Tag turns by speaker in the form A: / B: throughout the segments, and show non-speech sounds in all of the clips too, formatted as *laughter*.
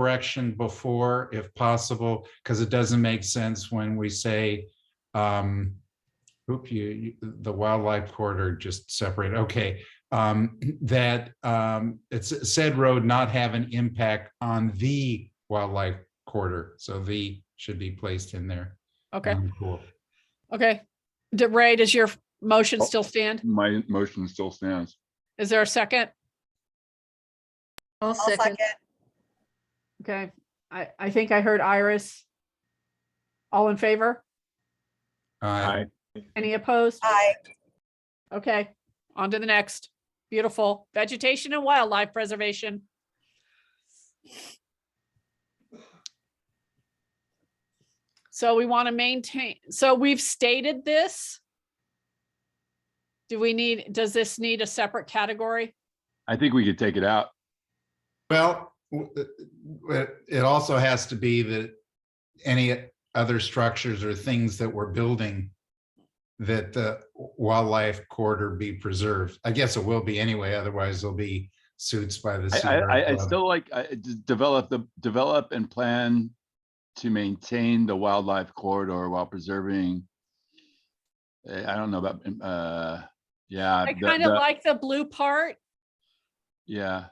A: correction before if possible, because it doesn't make sense when we say, um, oop, you, you- the wildlife corridor just separate, okay. Um, *clears throat* that, um, it's said road not have an impact on the wildlife corridor. So the should be placed in there.
B: Okay,
A: Um, Cool.
B: okay. D- Ray, does your motion
C: Oh.
B: still stand?
C: My motion still stands.
B: Is there a second?
D: I'll
E: I'll second.
D: second.
B: Okay, I, I think I heard Iris. All in favor?
A: Uh,
C: Aye.
B: Any opposed?
E: Aye.
B: Okay, on to the next. Beautiful. Vegetation and wildlife preservation. So we want to maintain, so we've stated this. Do we need, does this need a separate category?
C: I think we could take it out.
A: Well, w- uh, w- it also has to be that any other structures or things that we're building that the wildlife corridor be preserved. I guess it will be anyway, otherwise there'll be suits by the.
C: I, I,
A: Sierra
C: I- I
A: Club.
C: still like, I I d- develop the, develop and plan to maintain the wildlife corridor while preserving. Eh, I don't know about, uh, yeah.
B: I
C: the-
B: kind of
C: the-
B: like the blue part,
C: Yeah,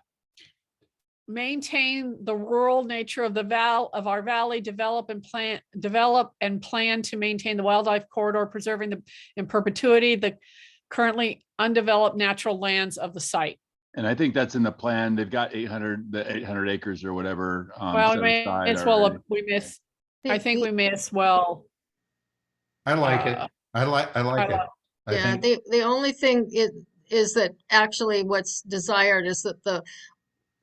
B: maintain the rural nature of the val, of our valley, develop and plant, develop and plan to maintain the wildlife corridor, preserving the, in perpetuity, the currently undeveloped natural lands of the site.
C: and I think that's in the plan. They've got eight hundred, the eight hundred acres or whatever. um,
B: Well,
C: set
B: we may
C: aside
B: as well,
C: already.
B: we miss, I think we
D: They-
B: may as well.
A: I like it.
B: uh,
A: I like, I like it.
B: uh,
A: I
D: Yeah,
A: think,
D: the, the only thing is, is that actually what's desired is that the,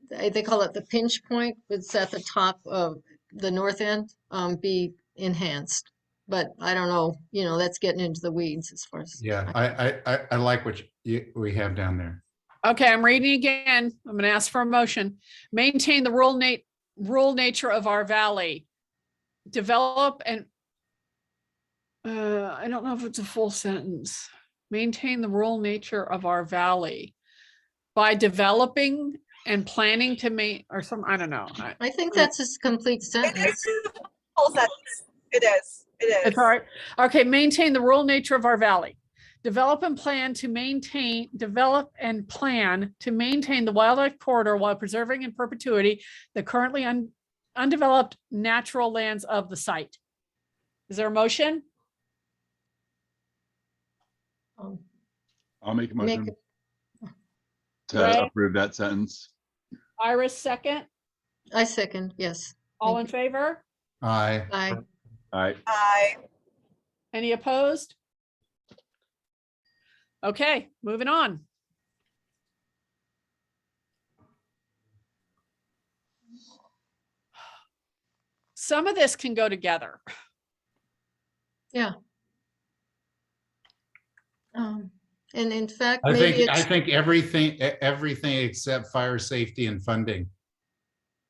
D: they they call it the pinch point, it's at the top of the north end, um, be enhanced. But I don't know, you know, that's getting into the weeds as far as.
A: yeah, I, I, I, I like what you, we have down there.
B: Okay, I'm reading again. I'm gonna ask for a motion. Maintain the rural nat- rural nature of our valley. Develop and uh, I don't know if it's a full sentence. Maintain the rural nature of our valley by developing and planning to ma- or some, I don't know. I-
D: I think
B: Mm.
D: that's a s- complete
E: It
D: sentence.
E: is a full sentence. *laughs* It is, it
B: It's
E: is.
B: all right. Okay, maintain the rural nature of our valley. Develop and plan to maintain, develop and plan to maintain the wildlife corridor while preserving in perpetuity the currently un- undeveloped natural lands of the site. Is there a motion?
D: Um,
C: I'll make a
D: Make
C: motion
B: Right.
C: to approve that sentence.
B: Iris, second.
D: I second, yes,
B: All in
D: Thank
B: favor?
A: I,
D: I,
C: All right,
E: Aye.
B: Any opposed? Okay, moving on. Some of this can go together.
D: um, and in fact,
A: I
D: maybe
A: think, I
D: it's,
A: think everything, e- everything except fire safety and funding.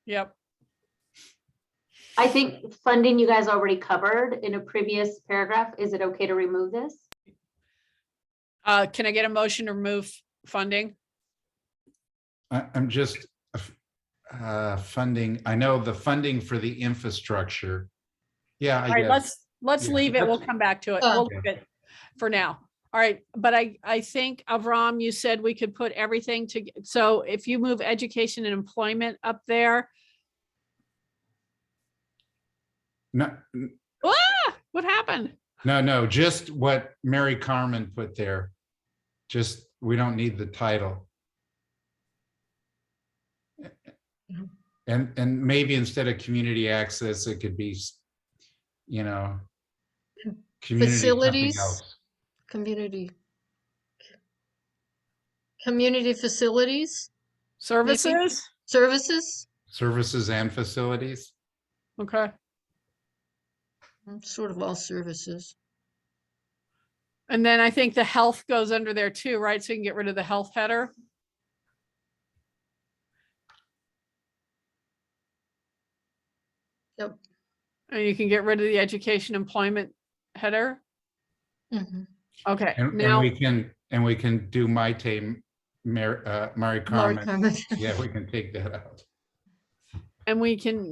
B: Yep.
F: I think funding you guys already covered in a previous paragraph. Is it okay to remove this?
B: Uh, can I get a motion to remove funding?
A: I, I'm just, uh, f- uh, funding, I know the funding for the infrastructure. Yeah,
B: All
A: I
B: right,
A: guess,
B: let's, let's
A: Yeah.
B: leave it. We'll come back to it. We'll
D: Oh.
B: leave it for now. All right, but I, I think Avram, you said we could put everything to, so if you move education and employment up there,
A: no,
B: ah, what happened?
A: no, no, just what Mary Carmen put there. Just, we don't need the title.
B: Mm-hmm.
A: And, and maybe instead of community access, it could be, s- you know, community something
D: Facilities?
A: else.
D: community. Community facilities,
B: Services?
D: services,
A: Services and facilities,
B: Okay,
D: Mm, sort of all services.
B: and then I think the health goes under there too, right? So you can get rid of the health header.
D: Yep.
B: And you can get rid of the education employment header.
D: Mhm.
B: Okay,
A: and, and
B: now,
A: we can, and we can do my team, Mary, uh, Mary
D: Mark
A: Carmen.
D: Hammond.
A: Yeah, we can take that out.
B: and we can